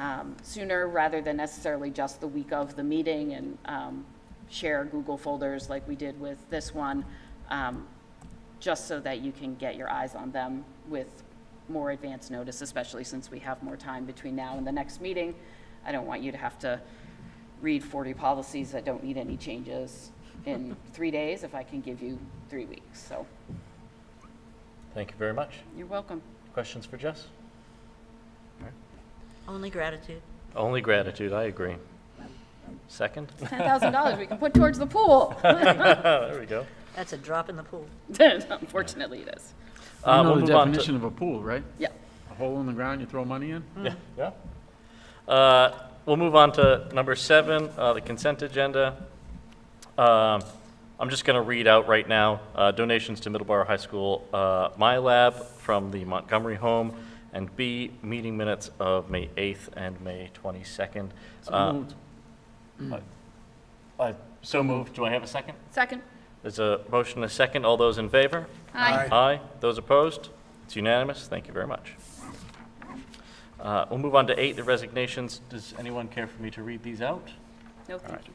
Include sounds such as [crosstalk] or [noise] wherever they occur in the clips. um, sooner rather than necessarily just the week of the meeting and um, share Google folders like we did with this one, um, just so that you can get your eyes on them with more advance notice, especially since we have more time between now and the next meeting. I don't want you to have to read 40 policies that don't need any changes [laughs] in three days if I can give you three weeks. So Thank you very much. you're welcome. Questions for Jess? Only gratitude. Only gratitude, I agree. [laughs] Second? $10,000 we can put towards the [laughs] pool. Oh, There we go. That's a drop in the pool. Unfortunately, it is. Uh, we'll You know the move on to- definition of a pool, right? Yeah. A hole in the ground, you throw money in? Hmm. Yeah. Uh, We'll move on to number seven, uh, the consent agenda. Um, I'm just going to read out right now uh, donations to Middleborough High School uh, My Lab from the Montgomery Home, and B, meeting minutes of May 8th and May 22nd. Uh, uh, So moved. Do I have a second? Second. There's a motion and a second. All those in favor? Aye. Aye. Those opposed? It's unanimous. Thank you very much. Uh, We'll move on to eight, the resignations. Does anyone care for me to read these out? No, thank you.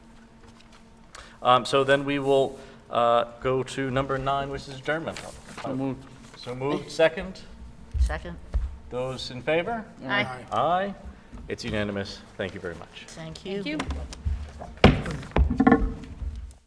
Um, So then we will uh, go to number nine, which is adjournment. So moved. So moved, second. Second, Those in favor? Aye. Aye. It's unanimous. Thank you very much. thank you. Thank you.